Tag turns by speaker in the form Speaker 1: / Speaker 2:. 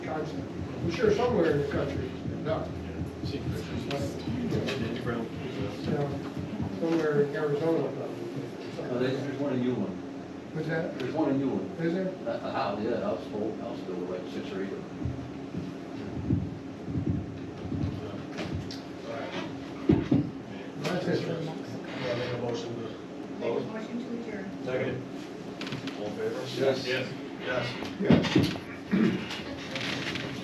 Speaker 1: thousand. I'm sure somewhere in the country, no,
Speaker 2: See pictures.
Speaker 1: you know, somewhere in Arizona.
Speaker 3: Uh, There's, there's one in Yulin,
Speaker 1: Was that,
Speaker 3: there's one in Yulin.
Speaker 1: is there?
Speaker 3: Uh, uh, yeah, I was told, I was told like six or eight. of them.
Speaker 1: That's it.
Speaker 4: Yeah, make a motion to
Speaker 5: Make a
Speaker 4: close.
Speaker 5: motion to adjourn.
Speaker 4: Second. All in favor?
Speaker 2: Yes.
Speaker 4: Yes.
Speaker 1: Yeah.